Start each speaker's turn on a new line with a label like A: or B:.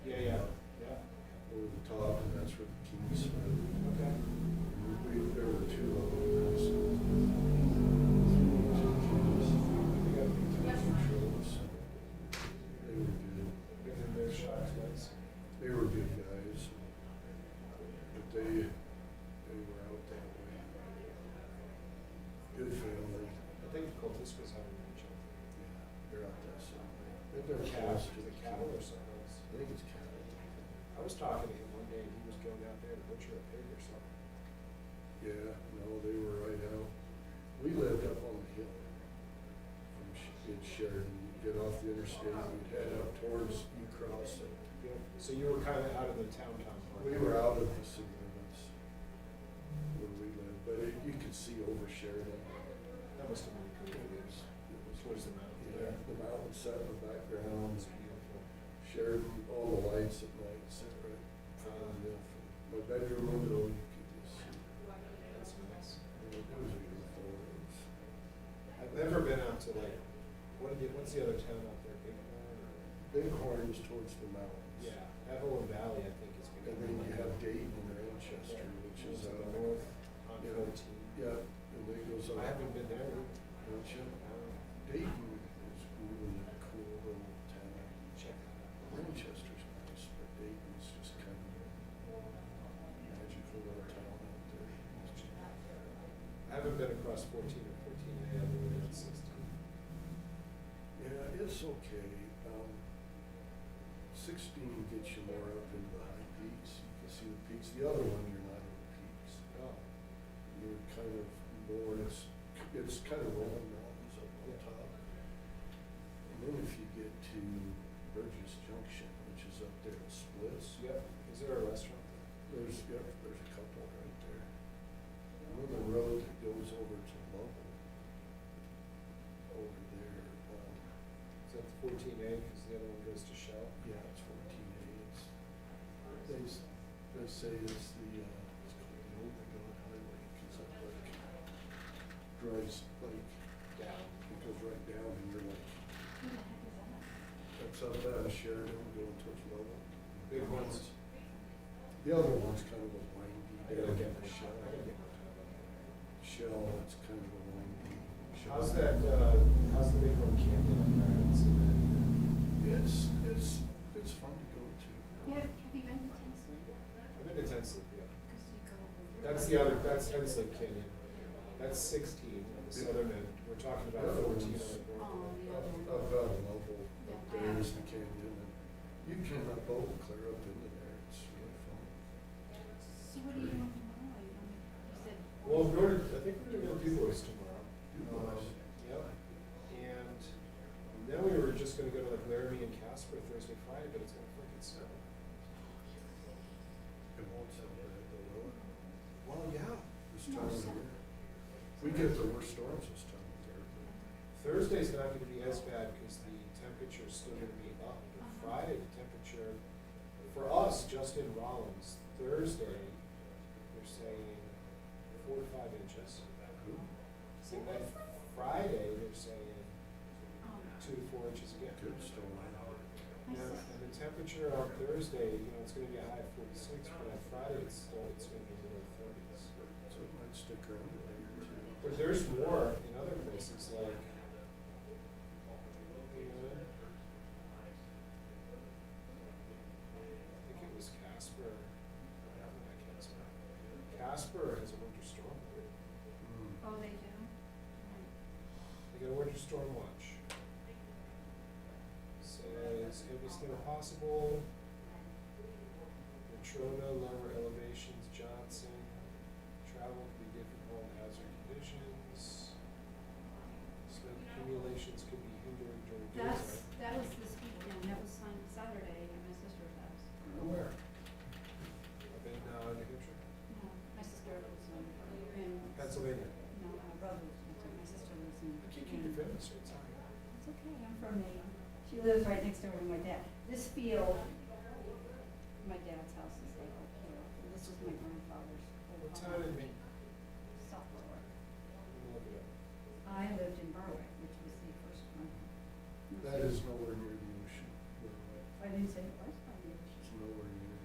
A: uh, They were good guys, but they, they were out that way. Good family,
B: I think Covisca's having a child.
A: yeah, they're out that somewhere. They're
B: Their
A: close
B: calf,
A: to
B: is
A: the
B: it cattle or something else?
A: I think it's cattle.
B: I was talking to him one day and he was going out there to butcher a pig or something.
A: Yeah, no, they were right out. We lived up on the hill from Sh- in Sheridan. You'd get off the interstate, you'd head up towards, you cross it.
B: You know, So you were kind of out of the town town part.
A: We were out of the city limits where we lived, but it- you could see over Sheridan.
B: That must have been
A: It
B: cool.
A: was, it was
B: Towards the mountain
A: Yeah,
B: there.
A: the mountain set in the
B: It
A: background,
B: was beautiful.
A: Sheridan, all the lights at night set right in front of me. From My bedroom window, you could just see.
B: That's nice.
A: It was beautiful. It was-
B: I've never been out to like, what are the, what's the other town out there? Bighorn or?
A: Bighorns towards the mountains.
B: Yeah, Evelyn Valley, I think is.
A: And then you have Dayton and Manchester, which is
B: up uh,
A: out
B: north
A: north.
B: on
A: Yeah.
B: fourteen.
A: Yeah, and then goes up.
B: I haven't been there.
A: Don't you?
B: Uh,
A: Dayton is really a cool little town.
B: Check that out.
A: Manchester's nice, but Dayton's just kind of a magical little town out there.
B: I haven't been across fourteen or fourteen A, I've been around sixteen.
A: Yeah, it's okay. Um, sixteen gets you more up into the high peaks. You can see the peaks. The other one, you're not in the peaks.
B: Oh,
A: you're kind of more, it's, it's kind of rolling mountains up on
B: Yeah.
A: top. And then if you get to Burgess Junction, which is up there at Splits,
B: yep, is there a restaurant
A: there's, yep, there's a couple right there. And then the road that goes over to Lovell, over there, um,
B: there? Is that the fourteen A, because the other one goes to Shell?
A: yeah, it's fourteen A, it's, they, s- they say it's the, uh, it's called the Old McDonald Highway, cause that like drives like
B: Down.
A: It goes right down and you're like, that's up out of Sheridan going towards Lovell.
B: Big ones.
A: The other one's kind of a windy.
B: I gotta get
A: down
B: my shot, I gotta get my time on
A: Shell, it's kind of a windy.
B: that.
A: shell.
B: How's that, uh, how's the big one camping up there? I haven't seen that either.
A: It's, it's, it's fun to go to.
C: Yeah, have you been to Tinsley?
B: I've been to Tensley, yeah.
C: Because you go over.
B: That's the other, that's Hensley Canyon. That's sixteen on the southern end. We're talking about fourteen on the
C: Oh,
B: north.
A: Up up out of Lovell, up there is the canyon and you can uh, boat clear up into there. It's really fun.
C: So what do you want tomorrow? You want- you said.
B: Well, we're, gonna- I think we're gonna go do boys tomorrow.
A: Du Bois.
B: Um, Yep. And then we were just gonna go to like Laramie and Casper Thursday, Friday, but it's gonna freaking snow.
A: It won't sound bad though, will it?
B: Well, yeah.
A: This
C: No,
A: time of
C: so-
A: year. We get the worst storms this time of year. but-
B: Thursday's not gonna be as bad because the temperature's still gonna be up. But
C: Uh-huh.
B: Friday, the temperature, for us, just in Rollins, Thursday, they're saying four to five inches. So by Friday, they're saying
C: Um,
B: two to four inches again.
A: Good storm.
C: my
B: Yeah,
C: sis-
B: and the temperature on Thursday, you know, it's gonna be a high of forty-six, but on Friday, it's still, it's gonna be low thirties.
A: So it might stick around a day or two.
B: But there's more in other places, like, you know, I think it was Casper, I don't know, Casper. Casper has a winter storm.
C: Oh, they do? Mm.
B: They got a winter storm watch. Says it was near possible. Natrona, lower elevations, Johnson, travel can be difficult, in hazard conditions. Snow accumulations could be hindering during
C: That's,
B: daytime.
C: that was this weekend, that was on Saturday at my sister's house.
A: Where?
B: I've been, uh, New Hampshire,
C: No, my sister lives in, in.
B: Pennsylvania.
C: No, my brother lives in, my sister lives in.
B: I can't keep your family straight, sorry.
C: It's okay, I'm from Maine. She lives right next door to my dad. This field, my dad's house is like up here. This was my grandfather's. old
B: What
C: home.
B: town in Maine